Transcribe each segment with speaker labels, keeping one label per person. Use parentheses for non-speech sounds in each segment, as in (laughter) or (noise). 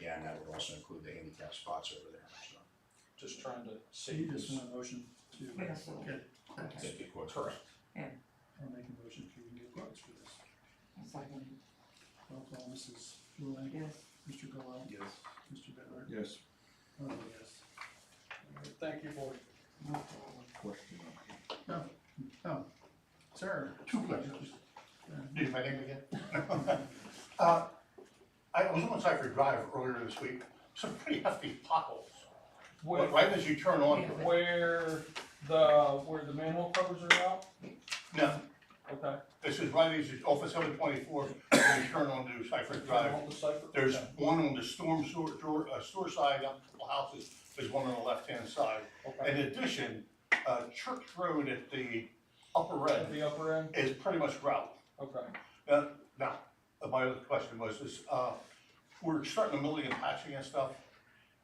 Speaker 1: Yeah, and that would also include the handicap spots over there, so.
Speaker 2: just trying to
Speaker 3: So you
Speaker 2: save
Speaker 3: just
Speaker 2: this.
Speaker 3: want a motion to.
Speaker 4: Yeah, so-
Speaker 3: Okay,
Speaker 4: Okay,
Speaker 1: Get quotes.
Speaker 2: Correct.
Speaker 3: I'll make a motion to get quotes for this.
Speaker 4: a second,
Speaker 3: Roll call, Mrs. Ruling,
Speaker 4: yes,
Speaker 3: Mr. Gallow,
Speaker 5: Yes.
Speaker 3: Mr. Bittler.
Speaker 5: Yes,
Speaker 3: Oh, yes.
Speaker 2: Thank you, board.
Speaker 4: no problem.
Speaker 5: question.
Speaker 3: Oh, oh, sir.
Speaker 1: Two questions. Need my name again? Uh, I was on Cypher Drive earlier this week, some pretty hefty potholes.
Speaker 2: Where,
Speaker 1: Right as you turn on,
Speaker 2: where the, where the manhole covers are out?
Speaker 1: no,
Speaker 2: Okay.
Speaker 1: this is right as you, off of seven twenty-four, you turn onto Cypher Drive.
Speaker 2: Manhole decipher?
Speaker 1: There's
Speaker 2: Okay.
Speaker 1: one on the storm sewer, door, uh, store side, up a couple houses, there's one on the left-hand side. In
Speaker 2: Okay.
Speaker 1: addition, uh, Church Road at the upper
Speaker 2: At
Speaker 1: end
Speaker 2: the upper end?
Speaker 1: is pretty much gravel.
Speaker 2: Okay.
Speaker 1: Now, Uh, now, my other question was, is, uh, we're starting to milling and patching and stuff.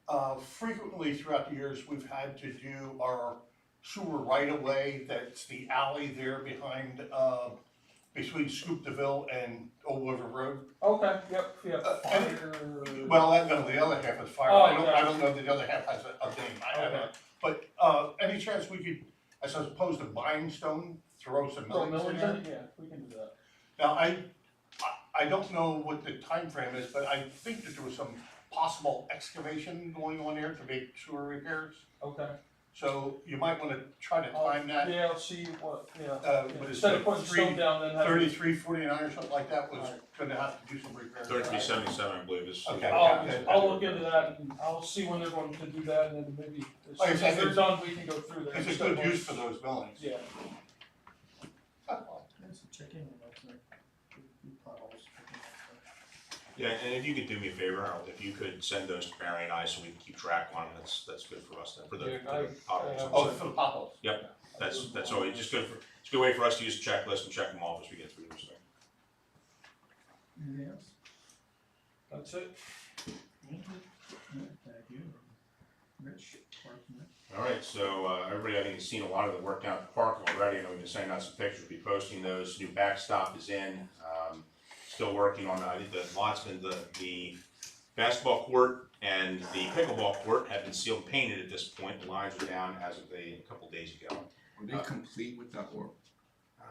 Speaker 1: Uh, frequently throughout the years, we've had to do our sewer right-of-way, that's the alley there behind, uh, between Scoop DeVille and Old River Road.
Speaker 2: Okay, yep,
Speaker 1: Uh,
Speaker 2: yep.
Speaker 1: and-
Speaker 2: Fire-
Speaker 1: Well, I know the other half is fire,
Speaker 2: Oh,
Speaker 1: I don't, I
Speaker 2: yeah.
Speaker 1: don't know if the other half has a, a name, I don't know.
Speaker 2: Okay.
Speaker 1: But, uh, any chance we could, as opposed to buying stone, throw some
Speaker 2: Throw
Speaker 1: millings in
Speaker 2: millings
Speaker 1: there?
Speaker 2: in? Yeah, we can do that.
Speaker 1: Now, I, I- I don't know what the time frame is, but I think that there was some possible excavation going on there to make sewer repairs.
Speaker 2: Okay.
Speaker 1: So you might wanna try to
Speaker 2: I'll-
Speaker 1: time that,
Speaker 2: Oh, Yeah, I'll see what, yeah.
Speaker 1: uh,
Speaker 2: Yeah,
Speaker 1: what is
Speaker 2: Instead of
Speaker 1: it,
Speaker 2: putting stone
Speaker 1: three,
Speaker 2: down, then have.
Speaker 1: thirty-three, forty-nine or something like that was
Speaker 2: Alright.
Speaker 1: gonna have to do some repairs.
Speaker 6: Thirty-three seventy-seven, I believe, is.
Speaker 1: Okay.
Speaker 2: I'll, I'll look into that and I'll see when they're going to do that and then maybe as
Speaker 1: Like
Speaker 2: soon
Speaker 1: I
Speaker 2: as
Speaker 1: said,
Speaker 2: they're
Speaker 1: it's-
Speaker 2: done, we can go through there.
Speaker 1: It's a
Speaker 2: Step
Speaker 1: good
Speaker 2: by-
Speaker 1: use for those buildings. Oh,
Speaker 2: Yeah,
Speaker 3: Let's check in with that, like, the potholes.
Speaker 6: Yeah, and if you could do me a favor, Harold, if you could send those to Barry and I so we can keep track on them, that's, that's good for us then, for the,
Speaker 2: Yeah,
Speaker 6: for
Speaker 2: I-
Speaker 6: the potholes.
Speaker 2: I-
Speaker 1: Oh, for the potholes.
Speaker 6: That's, that's always, just good for, it's a good way for us to use the checklist and check them off as we get through this thing.
Speaker 3: Anything else?
Speaker 2: that's it.
Speaker 4: Thank you.
Speaker 3: No, Thank you. Rich, Parkman.
Speaker 6: All right, so uh, everybody, I think, has seen a lot of the work down at the park already, and we've been sending out some pictures, we'll be posting those. New backstop is in, um, still working on, I think, the lots and the, the basketball court and the pickleball court have been sealed and painted at this point. The lines are down as of the, a couple days ago.
Speaker 5: Were they complete with that work?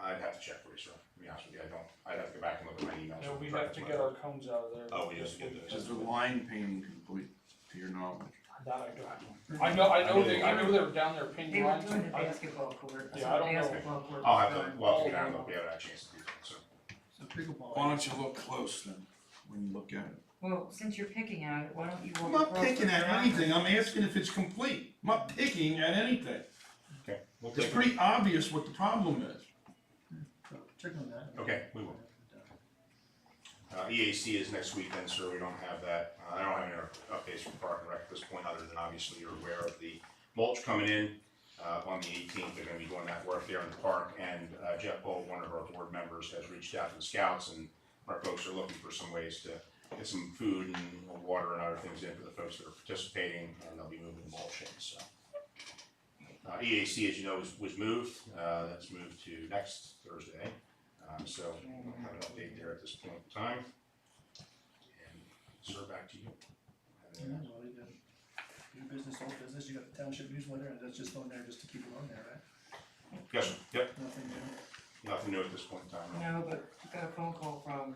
Speaker 6: I'd have to check for you, sir, to be honest with you, I don't, I'd have to go back and look at my emails.
Speaker 2: Now, we have to get our cones out of there.
Speaker 6: Oh, we have to get those.
Speaker 5: Is the line painting complete to your knowledge?
Speaker 2: That I don't. I know, I know they, I know they were down there
Speaker 4: They
Speaker 2: painting
Speaker 4: were
Speaker 2: lines.
Speaker 4: doing the
Speaker 2: I-
Speaker 4: basketball court, so the
Speaker 2: Yeah, I don't know.
Speaker 4: basketball court
Speaker 6: I'll
Speaker 4: was
Speaker 6: have
Speaker 4: done.
Speaker 6: to, well, we haven't, we haven't had a chance to do that, so.
Speaker 3: So pickleball.
Speaker 5: Why don't you look close then, when you look at it?
Speaker 4: Well, since you're picking at it, why don't you? walk
Speaker 5: I'm not
Speaker 4: across
Speaker 5: picking
Speaker 4: the
Speaker 5: at
Speaker 4: ground?
Speaker 5: anything, I'm asking if it's complete, I'm not picking at anything.
Speaker 6: Okay. we'll
Speaker 5: It's
Speaker 6: take-
Speaker 5: pretty obvious what the problem is.
Speaker 3: So Check on that.
Speaker 6: Okay, we will. Uh, EAC is next weekend, sir, we don't have that, Uh, I don't have any other updates from Park and Rec at this point, other than obviously you're aware of the mulch coming in, uh, on the eighteenth, they're gonna be doing that work there in the park, and uh, Jeff Bolt, one of our board members, has reached out to the scouts, and our folks are looking for some ways to get some food and water and other things in for the folks that are participating, and they'll be moving mulch in, so. Uh, EAC, as you know, was, was moved, uh, that's moved to next Thursday, um, so we don't have an update there at this point in time. And sir, back to you.
Speaker 3: Yeah, well, you got new business, old business, you got the township newsletter, and that's just on there just to keep it on there, right?
Speaker 6: Yes, sir, yep,
Speaker 3: Nothing new.
Speaker 6: nothing new at this point in time.
Speaker 4: No, but I got a phone call from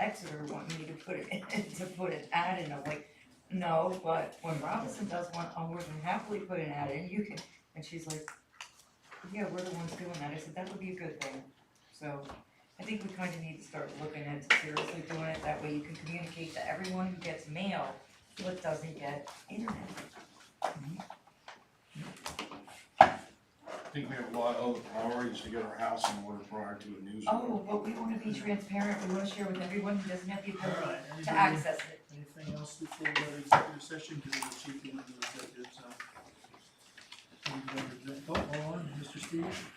Speaker 4: Exeter wanting me to put it, (laughs) to put an ad in, I'm like, no, but when Robinson does one, I'll more than happily put an ad in, you can, and she's like, yeah, we're the ones doing that, I said, that would be a good thing, so, I think we kinda need to start looking at seriously doing it, that way you can communicate to everyone who gets mail, but doesn't get internet.
Speaker 5: I think we have a lot of other priorities to get our house in order prior to a news.
Speaker 4: Oh, but we wanna be transparent, we wanna share with everyone who doesn't have the ability
Speaker 3: Alright,
Speaker 4: to
Speaker 3: anybody,
Speaker 4: access it.
Speaker 3: anything else before we go to executive session, because the chief in the executive, so. Can we go to exec- Oh, hold on, Mr. Steve,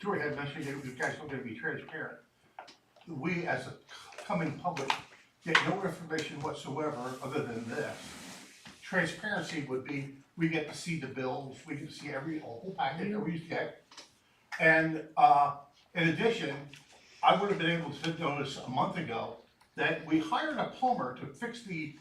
Speaker 1: George had mentioned that you guys are gonna be transparent. We, as a coming public, get no information whatsoever other than this. Transparency would be, we get to see the bills, we get to see every, whole packet that we get. And, uh, in addition, I would have been able to notice a month ago that we hired a plumber to fix the